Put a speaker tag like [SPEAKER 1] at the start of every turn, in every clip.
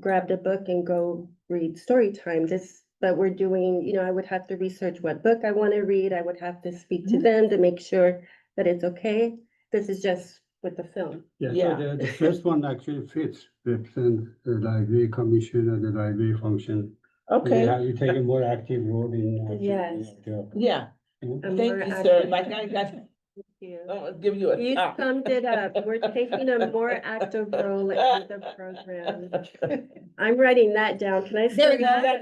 [SPEAKER 1] grabbed a book and go read story time. This, but we're doing, you know, I would have to research what book I want to read. I would have to speak to
[SPEAKER 2] Mhm.
[SPEAKER 1] them to make sure that it's okay. This is just with the film.
[SPEAKER 3] Yeah.
[SPEAKER 4] Yeah, so the, the first one actually fits, represent the library commission and the library function.
[SPEAKER 2] Okay,
[SPEAKER 4] Yeah, You take a more active role in. actually
[SPEAKER 1] Yes.
[SPEAKER 4] doing
[SPEAKER 2] yeah,
[SPEAKER 4] your job.
[SPEAKER 1] I'm
[SPEAKER 2] thank
[SPEAKER 1] more
[SPEAKER 2] you, sir,
[SPEAKER 1] active.
[SPEAKER 2] like I got, Ah.
[SPEAKER 1] You
[SPEAKER 2] I'll give you a
[SPEAKER 1] You
[SPEAKER 2] top.
[SPEAKER 1] summed it up. We're taking a more active role in the program. I'm writing that down. Can I
[SPEAKER 2] There
[SPEAKER 1] say
[SPEAKER 2] we go.
[SPEAKER 1] that?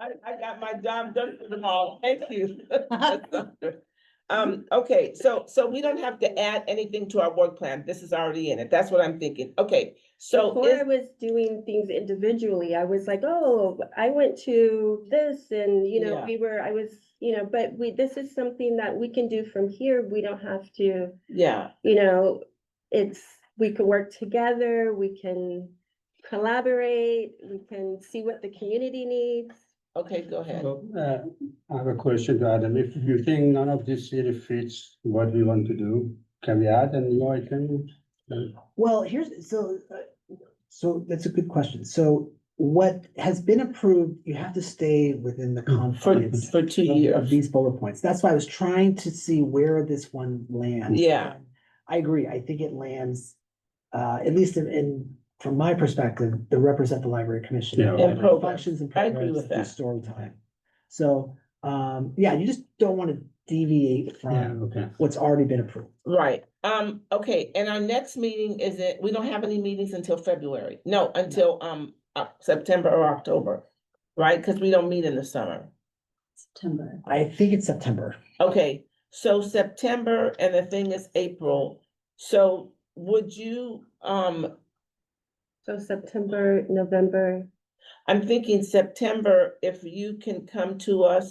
[SPEAKER 2] I, I got my job done for them all, thank you. Um, okay, so, so we don't have to add anything to our work plan, this is already in it, that's what I'm thinking, okay, so
[SPEAKER 1] Before I
[SPEAKER 2] is,
[SPEAKER 1] was doing things individually, I was like, oh, I went to this and, you know,
[SPEAKER 2] Yeah.
[SPEAKER 1] we were, I was, you know, but we, this is something that we can do from here. We don't have to,
[SPEAKER 2] yeah,
[SPEAKER 1] you know, it's, we could work together, we can collaborate, we can see what the community needs.
[SPEAKER 2] okay, go ahead.
[SPEAKER 4] So, uh, I have a question to Adam, if you think none of this really fits what we want to do, can we add a new item?
[SPEAKER 5] Well, here's, so, uh, so that's a good question. So what has been approved, you have to stay within the
[SPEAKER 2] Mm, For,
[SPEAKER 5] confines
[SPEAKER 2] for two
[SPEAKER 5] of- of
[SPEAKER 2] years,
[SPEAKER 5] these bullet points. That's why I was trying to see where this one lands.
[SPEAKER 2] Yeah.
[SPEAKER 5] I agree. I think it lands, uh, at least in- in, from my perspective, the represent the library commission.
[SPEAKER 4] Yeah.
[SPEAKER 5] library
[SPEAKER 2] And programs.
[SPEAKER 5] Functions and
[SPEAKER 2] I agree
[SPEAKER 5] programs
[SPEAKER 2] with
[SPEAKER 5] through
[SPEAKER 2] that.
[SPEAKER 5] Story time. So, um, yeah, you just don't want to deviate
[SPEAKER 4] Yeah,
[SPEAKER 5] from
[SPEAKER 4] okay.
[SPEAKER 5] what's already been approved.
[SPEAKER 2] right, um, okay, and our next meeting is it, we don't have any meetings until February, no, until, um, uh, September or October, right, because we don't meet in the summer.
[SPEAKER 6] September.
[SPEAKER 5] I think it's September.
[SPEAKER 2] Okay, so September and the thing is April, so would you, um,
[SPEAKER 1] So September, November,
[SPEAKER 2] I'm thinking September, if you can come to us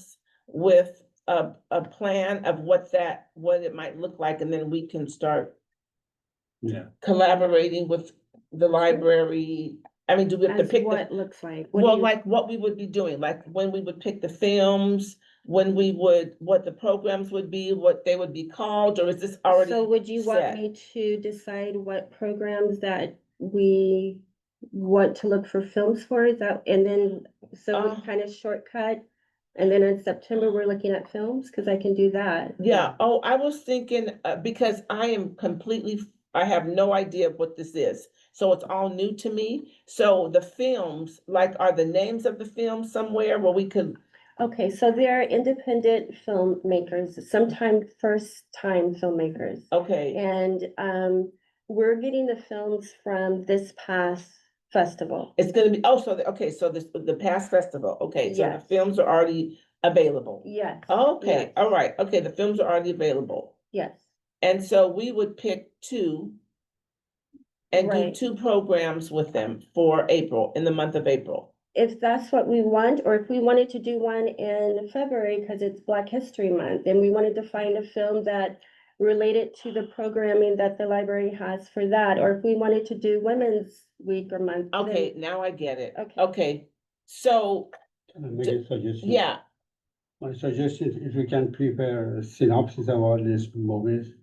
[SPEAKER 2] with a, a plan of what that, what it might look like, and then we can start
[SPEAKER 4] Yeah.
[SPEAKER 2] collaborating with the library, I mean, do we have to
[SPEAKER 1] as
[SPEAKER 2] pick the
[SPEAKER 1] what looks like. What do
[SPEAKER 2] Well,
[SPEAKER 1] you-
[SPEAKER 2] like what we would be doing, like when we would pick the films, when we would, what the programs would be, what they would be called, or is this already?
[SPEAKER 1] So would you want
[SPEAKER 2] set?
[SPEAKER 1] me to decide what programs that we want to look for films for, is that, and then, so
[SPEAKER 2] Uh.
[SPEAKER 1] it's kind of shortcut? And then in September, we're looking at films, because I can do that.
[SPEAKER 2] Yeah, oh, I was thinking, uh, because I am completely, f- I have no idea what this is. So it's all new to me. So the films, like, are the names of the films somewhere where we could,
[SPEAKER 1] Okay, so they are independent filmmakers, sometimes first-time filmmakers.
[SPEAKER 2] okay,
[SPEAKER 1] And um, we're getting the films from this past festival.
[SPEAKER 2] it's gonna be, oh, so, the- okay, so this, the past festival, okay, so the
[SPEAKER 1] Yes.
[SPEAKER 2] films are already available.
[SPEAKER 1] Yes.
[SPEAKER 2] Oh, Okay,
[SPEAKER 1] yes,
[SPEAKER 2] all right, okay, the films are already available.
[SPEAKER 1] Yes.
[SPEAKER 2] And so we would pick two and do
[SPEAKER 1] Right.
[SPEAKER 2] two programs with them for April, in the month of April.
[SPEAKER 1] if that's what we want, or if we wanted to do one in February, because it's Black History Month, and we wanted to find a film that related to the programming that the library has for that, or if we wanted to do Women's Week or month. then-
[SPEAKER 2] Okay, now I get it.
[SPEAKER 1] Okay.
[SPEAKER 2] Okay, so,
[SPEAKER 4] Can I make a suggestion?
[SPEAKER 2] yeah,
[SPEAKER 4] My suggestion is if we can prepare a synopsis of all these movies,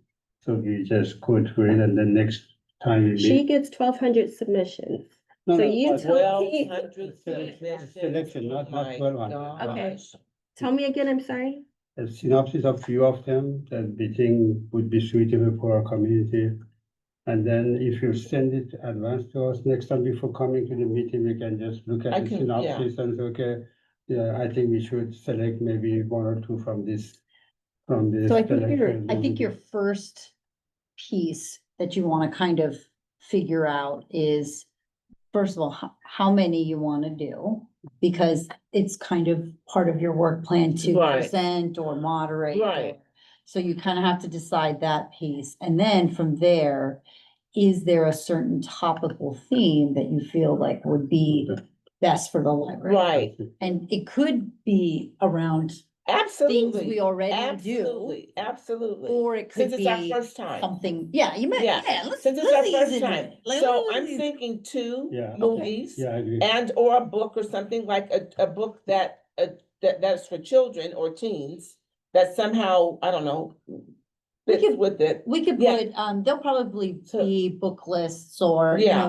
[SPEAKER 4] so we just go through it and then next time we meet.
[SPEAKER 1] She gets twelve hundred submissions.
[SPEAKER 4] No,
[SPEAKER 1] so
[SPEAKER 4] no,
[SPEAKER 1] you
[SPEAKER 4] but-
[SPEAKER 1] tell
[SPEAKER 2] twelve
[SPEAKER 1] me-
[SPEAKER 2] hundred
[SPEAKER 4] Selection,
[SPEAKER 2] suggestions.
[SPEAKER 4] selection,
[SPEAKER 2] Oh
[SPEAKER 4] not- not
[SPEAKER 2] my
[SPEAKER 4] 1200.
[SPEAKER 1] Okay.
[SPEAKER 2] gosh.
[SPEAKER 1] Tell me again, I'm sorry.
[SPEAKER 4] a synopsis of few of them that we think would be suitable for our community. And then if you send it advance to us next time before coming to the meeting, we can just look
[SPEAKER 2] I
[SPEAKER 4] at the
[SPEAKER 2] can- yeah.
[SPEAKER 4] synopsis and say, okay, yeah, I think we should select maybe one or two from this, from this.
[SPEAKER 6] So I think your,
[SPEAKER 4] selection.
[SPEAKER 6] I think your first piece that you want to kind of figure out is, first of all, how, how many you want to do? Because it's kind of part of your work plan to
[SPEAKER 2] Right.
[SPEAKER 6] present or moderate. or-
[SPEAKER 2] Right.
[SPEAKER 6] So you kind of have to decide that piece. And then from there, is there a certain topical theme that you feel like would be best for the library?
[SPEAKER 2] Right,
[SPEAKER 6] And it could be around things we
[SPEAKER 2] absolutely,
[SPEAKER 6] already do.
[SPEAKER 2] absolutely, absolutely.
[SPEAKER 6] Or it could
[SPEAKER 2] Since it's our
[SPEAKER 6] be
[SPEAKER 2] first time.
[SPEAKER 6] something, yeah, you might,
[SPEAKER 2] Yeah,
[SPEAKER 6] yeah, let's.
[SPEAKER 2] Since it's our
[SPEAKER 6] let's ease
[SPEAKER 2] first
[SPEAKER 6] into
[SPEAKER 2] time,
[SPEAKER 6] it. Like,
[SPEAKER 2] so
[SPEAKER 6] let's
[SPEAKER 2] I'm
[SPEAKER 6] ease-
[SPEAKER 2] thinking two
[SPEAKER 4] Yeah. Okay.
[SPEAKER 2] movies.
[SPEAKER 4] Yeah, I agree.
[SPEAKER 2] And or a book or something like a, a book that, uh, that, that's for children or teens, that somehow, I don't know. fits
[SPEAKER 6] could-
[SPEAKER 2] with it.
[SPEAKER 6] We could
[SPEAKER 2] Yeah.
[SPEAKER 6] put, um, they'll probably
[SPEAKER 2] So-
[SPEAKER 6] be book lists or, you
[SPEAKER 2] Yeah.
[SPEAKER 6] know,